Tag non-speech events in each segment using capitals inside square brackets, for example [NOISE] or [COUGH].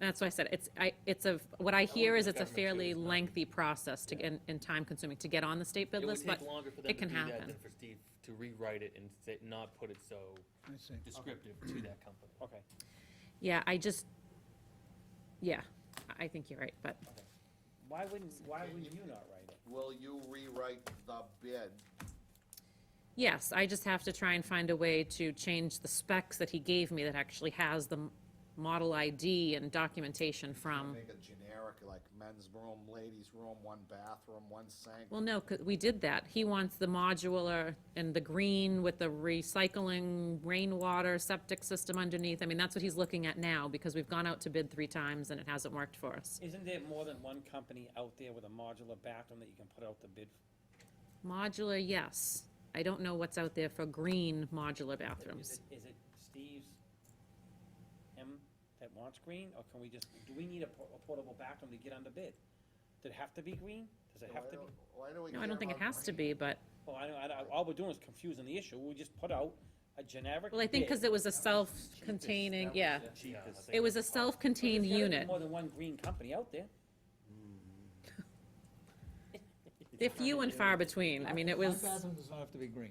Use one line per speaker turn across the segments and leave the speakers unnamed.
That's why I said, it's, I, it's a, what I hear is it's a
government too,
fairly
it's not-
lengthy process to, and, and time consuming to get on the state bid
It would
list, but
take longer for them
it
to
can
do that
happen.
than for Steve to rewrite it and say- not put it so
I see.
descriptive to that company.
Okay.
Yeah, I just, yeah, I- I think you're right, but
Why wouldn't, why
Can
wouldn't
you-
you not write it?
Will you rewrite the bid?
yes, I just have to try and find a way to change the specs that he gave me that actually has the m- model ID and documentation from.
Make it generic, like men's room, ladies' room, one bathroom, one sink.
Well, no, 'cause we did that. He wants the modular and the green with the recycling rainwater septic system underneath. I mean, that's what he's looking at now, because we've gone out to bid three times and it hasn't worked for us.
Isn't there more than one company out there with a modular bathroom that you can put out the bid?
Modular, yes. I don't know what's out there for green modular
for? Is
bathrooms.
it- Is it Steve's, him that wants green, or can we just, do we need a po- a portable bathroom to get on the bid? Does it have to be green? Does it
Why
have to be?
don't- Why do we?
No, I
care
don't think it
about
has to
green?
be, but,
Well, I, know- I, know- all we're doing is confusing the issue. We just put out a generic
well, I think
bid.
because it was a self-containing, yeah.
Cheapest.
It was a
But there's
self-contained
gotta be
unit.
More than one green company out there.
They're few and far between. I mean, it was.
One bathroom does not have to be green.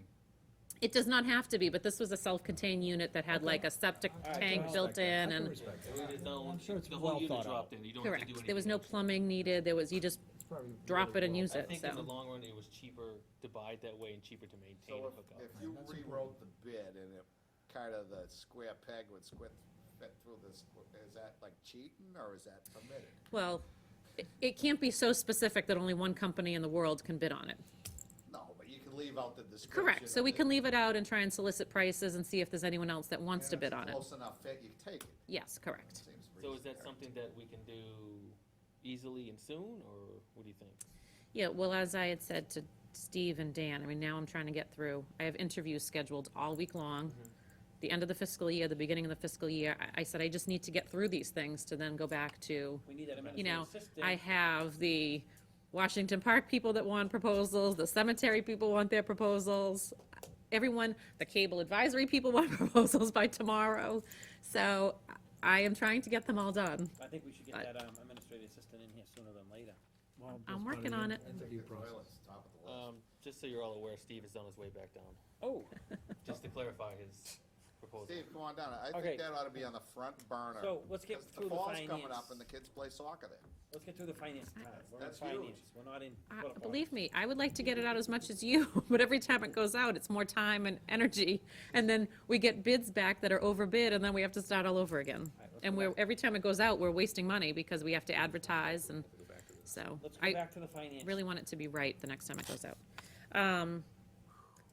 It does not have to be, but this was a self-contained unit that had like a septic
I can
tank
respect
built
that. I
in
can
and,
respect that.
It is all-
I'm sure it's
the whole
well
unit
thought out.
dropped in, you don't have to
correct.
do
There was
anything
no
else.
plumbing needed, there was, you just
It's probably
drop it and
really
use
I
it,
think in the
so.
long run, it was cheaper to buy it that way and cheaper to maintain
So
and hook
if,
up.
if you
That's important.
rewrote the bid and it, kind of the square peg would squit, fit through this, is that like cheating or is that permitted?
Well, it- it can't be so specific that only one company in the world can bid on it.
No, but you can leave out the description.
Correct, so
of
we
the-
can leave it out and try and solicit prices and see if there's anyone else that wants to
If it's
bid on it.
Close enough fit, you take it.
Yes, correct.
Seems
So is
reasonable.
that something that we can do easily and soon, or what do you think?
Yeah, well, as I had said to Steve and Dan, I mean, now I'm trying to get through, I have interviews scheduled all week long. The end of the fiscal year, the beginning of the fiscal year, I, I said I just need to get through these things to then go back to
We need that
you know,
administrative assistant.
I have the Washington Park people that want proposals, the cemetery people want their proposals, everyone, the cable advisory people [LAUGHS] want proposals by tomorrow. So I am trying to get them all done.
I think we should get
I-
that um, administrative assistant in here sooner than later.
Well, that's
I'm
part of
working
the
on it.
interview
The
process.
toilet's top of the list.
Um, just so you're all aware, Steve is on his way back down,
Oh,
just to clarify
[LAUGHS]
his proposal.
Steve, come on down. I
Okay.
think that ought to be on the front burner.
so let's get
'cause
through the
fall's
finance.
coming up and the kids play soccer there.
Let's get through the finance time. We're in
That's huge.
finance. We're not in.
I-
political.
Believe me, I would like to get it out as much as you, [LAUGHS] but every time it goes out, it's more time and energy. And then we get bids back that are overbid and then we have to start all over again.
right, let's
And
go
we're,
back.
every time it goes out, we're wasting money because we have to advertise and, so.
Let's go
I.
back to the finance.
really want it to be right the next time it goes out. Um,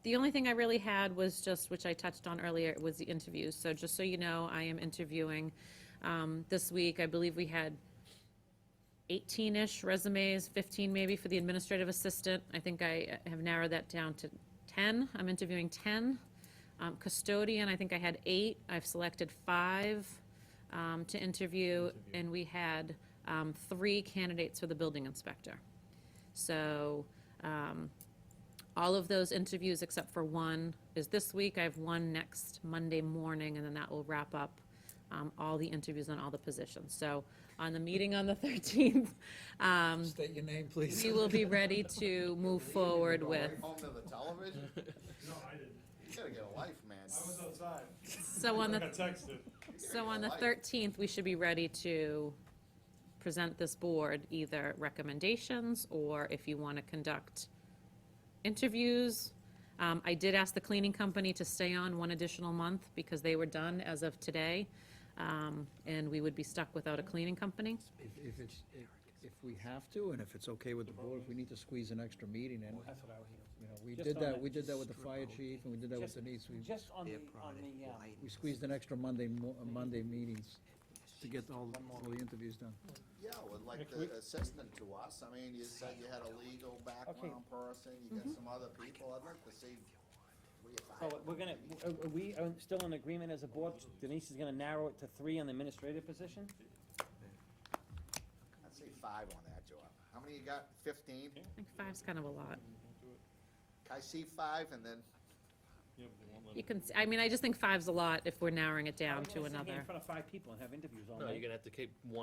The only thing I really had was just, which I touched on earlier, was the interviews. So just so you know, I am interviewing um, this week. I believe we had 18-ish resumes, 15 maybe for the administrative assistant. I think I uh, have narrowed that down to 10. I'm interviewing 10. Um, Custodian, I think I had eight. I've selected five um, to interview, and we had um, three candidates for the building inspector. So um, all of those interviews except for one is this week. I have one next Monday morning, and then that will wrap up um, all the interviews on all the positions. So on the meeting on the [LAUGHS] 13th, um,
State your name, please.
we will
[LAUGHS]
be ready to move forward with.
Home to
[LAUGHS]
the television?
No, I didn't.
You gotta get a life, man.
I was outside.
So on
I
the
got texted.
So on the 13th, we should be ready to present this board either recommendations or if you want to conduct interviews. Um, I did ask the cleaning company to stay on one additional month because they were done as of today. um, And we would be stuck without a cleaning company.
If, if it's, if- if we have to, and if it's okay with the board, if we need to squeeze an extra meeting in,
That's what I was
you know, we
Just
did
on
that,
that-
we did that with the fire chief, and we did that with Denise, we,
Just on the,
their
on
product
the, uh,
lighting.
we squeezed an extra Monday, mo- uh, Monday meetings to get all, all the interviews done.
Yeah, with like
Next
the
week.
assistant to us. I mean, you said you had a legal background person, you
Mm-hmm.
got some other people. I'd like to see. we-
so we're gonna, are are we uh, still in agreement as a board? Denise is gonna narrow it to three on the administrative position?
I'd say five on that, Joe. How many you got? Fifteen?
I think five's kind of a lot.
I see five and then,
You can, s- I mean, I just think five's a lot if we're narrowing it down
Are we
to
gonna sit here In
another.
front of five people and have interviews all night?
No, you're gonna have to keep one.